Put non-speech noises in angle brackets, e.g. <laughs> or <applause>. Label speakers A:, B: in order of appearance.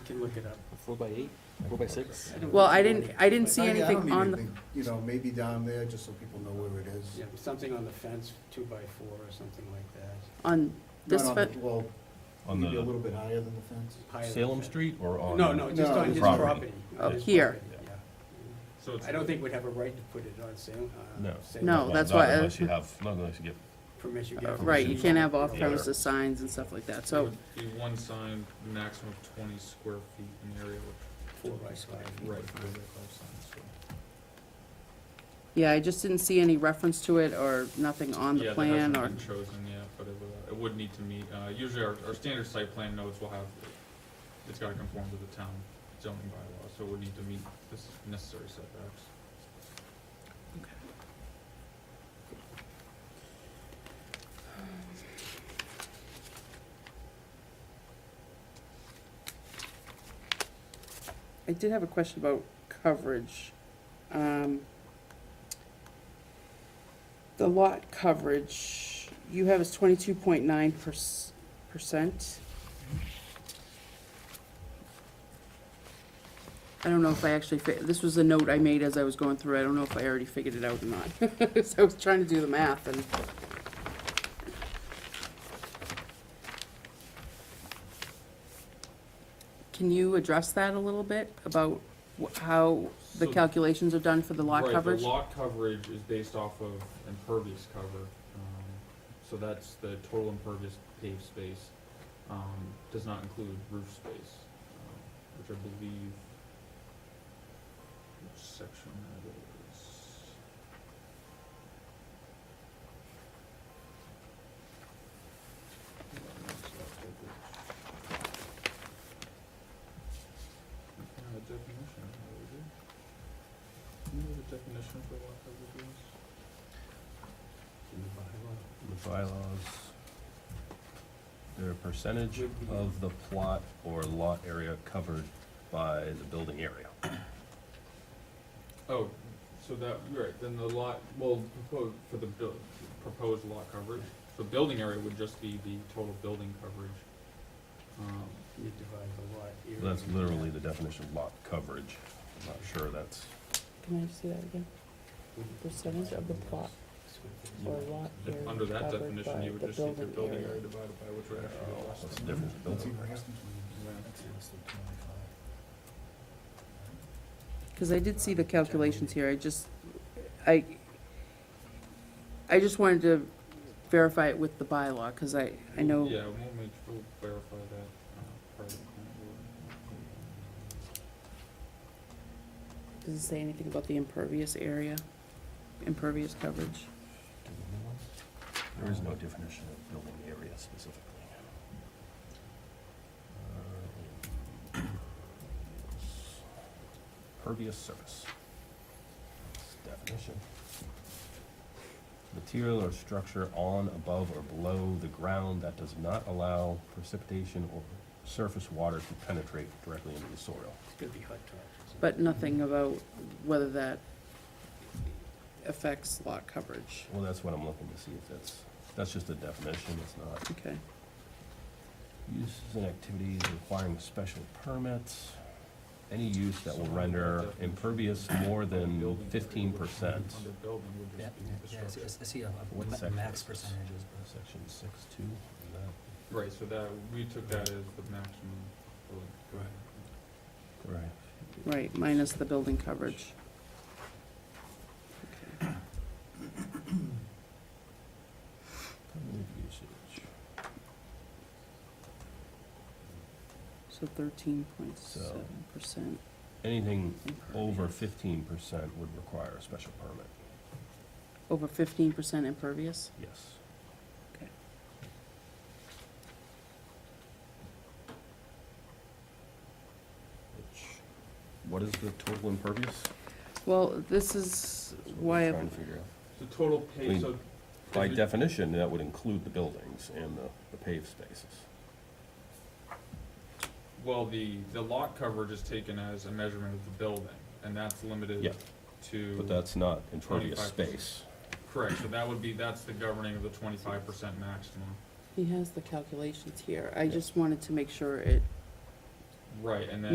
A: can look it up.
B: Four by eight, four by six?
A: I don't
C: Well, I
A: remember
C: didn't,
A: any-
C: I didn't see
D: I- I don't
C: anything
D: need
C: on, the
D: anything, You know, maybe down there, just so people know where it is.
A: Yeah, something on the fence, two by four or something like that.
C: on this,
D: Not on the-
C: fe-
D: Well,
E: On
D: maybe a
E: the
D: little bit higher than the fence.
A: Higher than
E: Salem
A: that.
E: Street or on?
A: No, no, just
D: No,
A: on
D: his
A: his property.
E: property.
C: Oh,
A: His
C: here.
A: property, yeah.
E: So it's-
A: I don't think we'd have a right to put it on Salem,
E: No.
A: uh, Salem.
C: No,
E: Well,
C: that's
E: not
C: why I-
E: Unless you have, not unless you get,
A: Permit you
C: uh,
A: get.
C: right, you can't have off-premises
E: Yeah.
C: signs and stuff like that, so,
F: Be one sign, maximum of twenty square feet in area
A: Four by five.
F: with, right, for the
C: yeah, I just didn't see any reference to it or nothing on the plan
F: Yeah, that
C: or,
F: hasn't been chosen yet, but it would, it would need to meet, uh, usually our, our standard site plan notes will have, it's gotta conform to the town zoning bylaw, so it would need to meet this necessary setbacks.
C: I did have a question about coverage. Um, The lot coverage, you have is twenty-two point nine percent. I don't know if I actually, fi- this was a note I made as I was going through, I don't know if I already figured it out or not. <laughs> So I was trying to do the math and. Can you address that a little bit about wh- how the
F: So-
C: calculations are done for the lot
F: Right,
C: coverage?
F: The lot coverage is based off of impervious cover, um, so that's the total impervious paved space, um, does not include roof space, um, which I believe, which section that is. Uh, definition, what is it? Do you know the definition for lot coverage is?
A: In the
E: the bylaws, they're a percentage
A: Would be-
E: of the plot or lot area covered by the building area.
F: Oh, so that, you're right, then the lot, well, proposed, for the buil- proposed lot coverage, so building area would just be the total building coverage. Um,
A: bylaw, You divide the lot. area
E: That's
A: into
E: literally
A: that.
E: the definition of lot coverage. I'm not sure that's,
C: Can I see that again? Percentage of the plot or lot
F: Mm. if
C: area
F: Under that
C: covered
F: definition,
C: by
F: you would
C: the
F: just take the
C: building
F: building
C: area.
F: area divided by which
E: oh,
F: would actually be
E: what's
F: less
E: the
F: than.
E: difference? in
D: That's
E: building
D: even
E: area?
D: less than 25. That's less than 25.
C: Because I did see the calculations here, I just, I, I just wanted to verify it with the bylaw, because I, I know,
F: Yeah, we'll make, we'll clarify that, uh, part of the plan. board.
C: does it say anything about the impervious area, impervious coverage?
E: There is no definition of building area specifically. Uh, Pervious surface. That's Definition. Material or structure on, above, or below the ground that does not allow precipitation or surface water to penetrate directly into the soil.
A: It's gonna be hot dogs.
C: But nothing about whether that affects lot coverage,
E: Well, that's what I'm looking to see if that's, that's just a definition, it's not.
C: okay.
E: Uses and activities requiring special permits. Any use that will render impervious more than
F: Building area
E: fifteen
F: would be
E: percent.
F: Under building would
G: Yeah,
F: just be the
G: yeah, I see-
F: structure.
G: I see, a-
E: What
G: a
E: section
G: max
E: is this?
G: percentages, but.
E: Section six two.
F: Right, so that, we took that as the maximum building. Right.
E: Right.
C: Right, minus the building coverage.
E: Permitted usage.
C: So thirteen point seven percent.
E: Anything over fifteen percent would require a special permit,
C: Over fifteen percent impervious?
E: yes. Which, what is the total impervious?
C: Well, this is
E: That's what we're
C: why,
E: Trying to figure out.
F: So total
E: Clean.
F: pay, so
E: By
F: Is it-
E: definition, that would include the buildings and the the paved spaces.
F: Well, the, the lot coverage is taken as a measurement of the building, and that's limited
E: Yeah.
F: to.
E: But that's not impervious
F: 25%.
E: space.
F: Correct, so that would be, that's the governing of the twenty-five percent maximum.
C: he has the calculations here, I
E: Yeah.
C: just wanted to make sure it
F: Right, and then